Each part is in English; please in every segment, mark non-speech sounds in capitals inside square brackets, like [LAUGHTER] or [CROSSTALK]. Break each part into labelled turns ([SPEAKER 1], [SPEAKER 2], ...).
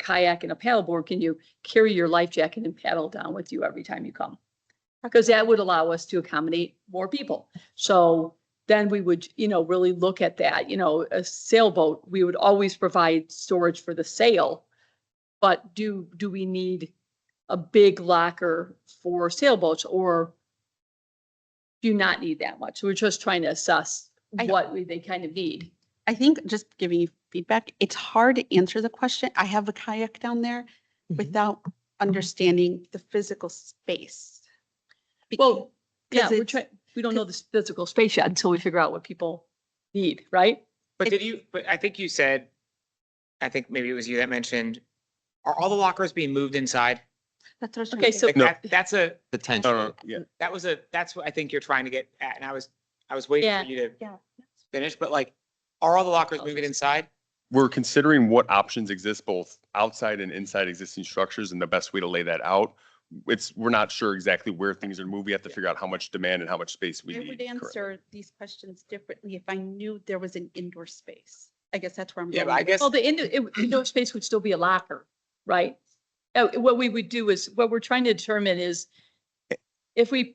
[SPEAKER 1] kayak and a paddleboard, can you carry your life jacket and paddle down with you every time you come? Because that would allow us to accommodate more people. So then we would, you know, really look at that, you know, a sailboat, we would always provide storage for the sail. But do, do we need a big locker for sailboats or do you not need that much? We're just trying to assess
[SPEAKER 2] I-
[SPEAKER 1] what we- they kind of need.
[SPEAKER 2] I think just giving you feedback, it's hard to answer the question. I have a kayak down there
[SPEAKER 3] Mhm.
[SPEAKER 2] without understanding the physical space. Bec-
[SPEAKER 1] Well, yeah,
[SPEAKER 2] 'cause
[SPEAKER 1] we're
[SPEAKER 2] it's-
[SPEAKER 1] trying, we don't know the physical space yet until we figure out what people need, right?
[SPEAKER 2] It-
[SPEAKER 4] But did you, but I think you said, I think maybe it was you that mentioned, are all the lockers being moved inside?
[SPEAKER 2] That's what I was trying
[SPEAKER 1] Okay,
[SPEAKER 2] to
[SPEAKER 1] so-
[SPEAKER 2] think.
[SPEAKER 4] Like
[SPEAKER 3] No.
[SPEAKER 4] that, that's a,
[SPEAKER 3] No,
[SPEAKER 5] Oh,
[SPEAKER 3] no, yeah.
[SPEAKER 4] that was a, that's what I think you're trying to get at. And I was, I was waiting
[SPEAKER 1] Yeah.
[SPEAKER 4] for you to
[SPEAKER 2] Yeah.
[SPEAKER 4] finish, but like, are all the lockers
[SPEAKER 1] Oh,
[SPEAKER 4] moving
[SPEAKER 1] just-
[SPEAKER 4] inside?
[SPEAKER 3] We're considering what options exist both outside and inside existing structures and the best way to lay that out. It's, we're not sure exactly where things are moved. We have to figure out how much demand and how much space we
[SPEAKER 2] I would
[SPEAKER 3] need. currently.
[SPEAKER 2] answer these questions differently if I knew there was an indoor space. I guess that's where I'm
[SPEAKER 4] Yeah,
[SPEAKER 2] going.
[SPEAKER 4] but I guess,
[SPEAKER 1] Well, the indoor, it- indoor space would still be a locker, right? Uh, What we would do is, what we're trying to determine is if we,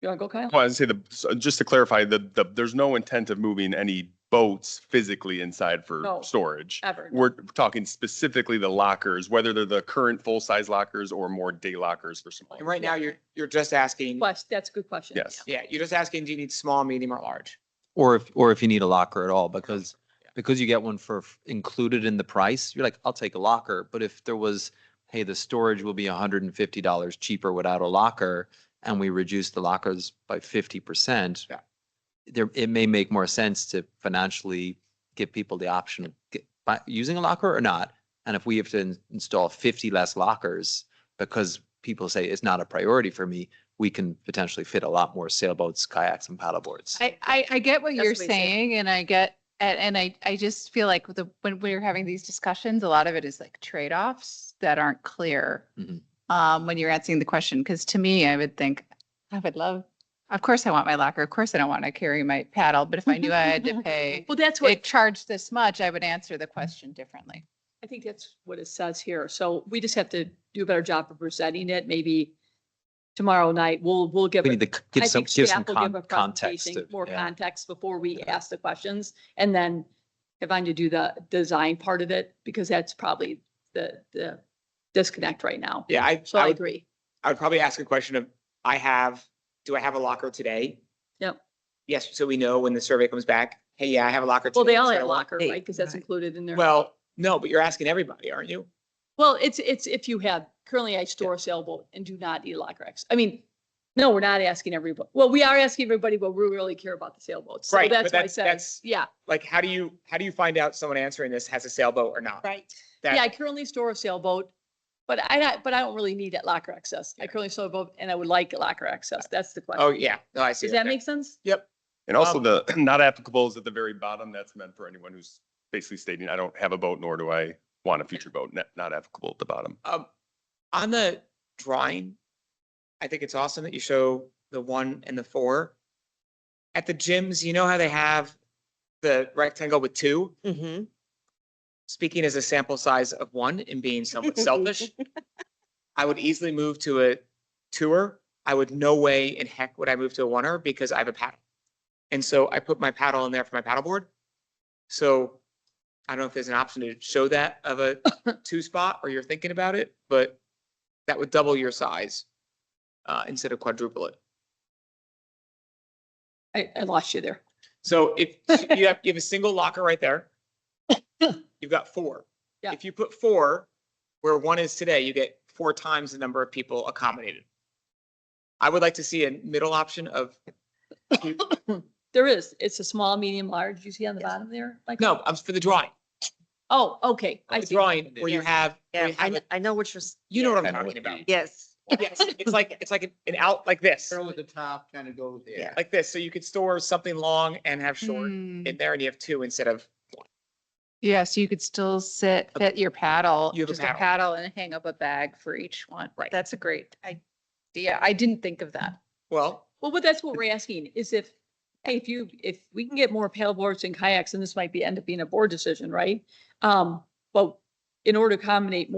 [SPEAKER 1] you want to go Kyle?
[SPEAKER 3] Well, I'd say the, so just to clarify, the, the, there's no intent of moving any boats physically inside
[SPEAKER 1] No.
[SPEAKER 3] for storage.
[SPEAKER 1] Ever.
[SPEAKER 3] We're talking specifically the lockers, whether they're the current full-size lockers or more day lockers for smaller.
[SPEAKER 4] and right now you're, you're just asking,
[SPEAKER 1] Quest, that's a good question.
[SPEAKER 3] Yes.
[SPEAKER 4] yeah, you're just asking, do you need small, medium or large?
[SPEAKER 5] Or if, or if you need a locker at all, because, because you get one for f- included in the price, you're like, I'll take a locker. But if there was, hey, the storage will be hundred and fifty dollars cheaper without a locker, and we reduce the lockers by fifty percent,
[SPEAKER 4] Yeah.
[SPEAKER 5] there, it may make more sense to financially give people the option of get, by using a locker or not. And if we have to in- install fifty less lockers, because people say it's not a priority for me, we can potentially fit a lot more sailboats, kayaks, and paddleboards.
[SPEAKER 6] I, I, I get what
[SPEAKER 1] That's
[SPEAKER 6] you're
[SPEAKER 1] what I said.
[SPEAKER 6] saying and I get, and, and I, I just feel like the, when we're having these discussions, a lot of it is like trade-offs that aren't clear.
[SPEAKER 1] Mm-hmm.
[SPEAKER 5] Mhm.
[SPEAKER 6] Um, when you're answering the question, because to me, I would think, I would love, of course I want my locker, of course I don't want to carry my paddle, but if I knew I
[SPEAKER 1] [LAUGHS]
[SPEAKER 6] had to pay,
[SPEAKER 1] Well, that's
[SPEAKER 6] it
[SPEAKER 1] what,
[SPEAKER 6] charged this much, I would answer the question differently.
[SPEAKER 1] I think that's what it says here. So we just have to do a better job of presenting it. Maybe tomorrow night, we'll, we'll give.
[SPEAKER 5] We
[SPEAKER 1] it-
[SPEAKER 5] need to c-
[SPEAKER 1] I
[SPEAKER 5] give some,
[SPEAKER 1] think
[SPEAKER 5] give some
[SPEAKER 1] staff will
[SPEAKER 5] con-
[SPEAKER 1] give a
[SPEAKER 5] context.
[SPEAKER 1] presentation,
[SPEAKER 5] to-
[SPEAKER 1] more
[SPEAKER 5] yeah.
[SPEAKER 1] context before we
[SPEAKER 5] Yeah.
[SPEAKER 1] ask the questions. And then if I need to do the design part of it, because that's probably the, the disconnect right now.
[SPEAKER 4] Yeah, I,
[SPEAKER 1] So
[SPEAKER 4] I
[SPEAKER 1] I
[SPEAKER 4] would,
[SPEAKER 1] agree.
[SPEAKER 4] I would probably ask a question of, I have, do I have a locker today?
[SPEAKER 1] Yep.
[SPEAKER 4] Yes, so we know when the survey comes back, hey, yeah, I have a locker.
[SPEAKER 1] Well, they
[SPEAKER 4] today,
[SPEAKER 1] all
[SPEAKER 4] so I
[SPEAKER 1] have
[SPEAKER 4] want-
[SPEAKER 1] locker, right? Because that's
[SPEAKER 6] right.
[SPEAKER 1] included in their.
[SPEAKER 4] Well, no, but you're asking everybody, aren't you?
[SPEAKER 1] Well, it's, it's if you have, currently I store a sailboat and do not eat locker X. I mean, no, we're not asking everybody. Well, we are asking everybody, but we really care about the sailboats. So
[SPEAKER 4] Right, but
[SPEAKER 1] that's why I
[SPEAKER 4] that's-
[SPEAKER 1] said,
[SPEAKER 4] that's-
[SPEAKER 1] yeah.
[SPEAKER 4] like how do you how do you find out someone answering this has a sailboat or not?
[SPEAKER 2] Right.
[SPEAKER 4] That-
[SPEAKER 1] Yeah, I currently store a sailboat, but I, not- but I don't really need that locker access. I
[SPEAKER 4] Yeah.
[SPEAKER 1] currently store a boat and I would like locker access. That's the
[SPEAKER 4] Oh
[SPEAKER 1] question.
[SPEAKER 4] yeah, no, I see.
[SPEAKER 1] Does that
[SPEAKER 4] Okay.
[SPEAKER 1] make sense?
[SPEAKER 3] And also
[SPEAKER 4] Um,
[SPEAKER 3] the [CLEARS THROAT] not applicable is at the very bottom. That's meant for anyone who's basically stating, I don't have a boat, nor do I want a future boat. Not, not applicable at the bottom.
[SPEAKER 4] um, on the drawing? I think it's awesome that you show the one and the four. At the gyms, you know how they have the rectangle with two.
[SPEAKER 2] Mm-hmm.
[SPEAKER 4] Speaking as a sample size of one and being somewhat selfish, I would easily move to a tour. I would no way in heck would I move to a oneer because I have a paddle. And so I put my paddle in there for my paddleboard. So I don't know if there's an option to show that of a two spot or you're thinking about it, but that would double your size uh, instead of quadruple it.
[SPEAKER 1] I, I lost you there.
[SPEAKER 4] So if you have, you have a single locker
[SPEAKER 1] [LAUGHS]
[SPEAKER 4] right there, you've got four.
[SPEAKER 1] Yeah.
[SPEAKER 4] If you put four where one is today, you get four times the number of people accommodated. I would like to see a middle option of,
[SPEAKER 1] There is, it's a small, medium, large. You see on the bottom there? Like,
[SPEAKER 4] no, I'm for the drawing,
[SPEAKER 1] Oh, okay. I
[SPEAKER 4] the
[SPEAKER 1] see.
[SPEAKER 4] drawing where you have,
[SPEAKER 7] Yeah,
[SPEAKER 4] where you
[SPEAKER 7] I,
[SPEAKER 4] have,
[SPEAKER 7] kn-
[SPEAKER 4] a-
[SPEAKER 7] I know what you're, s-
[SPEAKER 4] you know what
[SPEAKER 5] I
[SPEAKER 4] I'm
[SPEAKER 5] know what
[SPEAKER 4] talking
[SPEAKER 5] you
[SPEAKER 7] [LAUGHS]
[SPEAKER 4] about.
[SPEAKER 5] mean.
[SPEAKER 7] yes.
[SPEAKER 4] Yes, it's like, it's like an out like this,
[SPEAKER 8] Arrow at the top kind of goes there.
[SPEAKER 4] like this. So you could store something long and have short
[SPEAKER 6] Hmm.
[SPEAKER 4] in there and you have two instead of
[SPEAKER 6] Yeah, so you could still sit, fit your paddle,
[SPEAKER 4] You have a
[SPEAKER 6] just a
[SPEAKER 4] paddle.
[SPEAKER 6] paddle and hang up a bag for each one.
[SPEAKER 4] Right.
[SPEAKER 6] That's a great idea. I didn't think of that.
[SPEAKER 4] Well,
[SPEAKER 1] Well, but that's what we're asking is if, hey, if you, if we can get more paddleboards and kayaks, and this might be, end up being a board decision, right? Um, well, in order to accommodate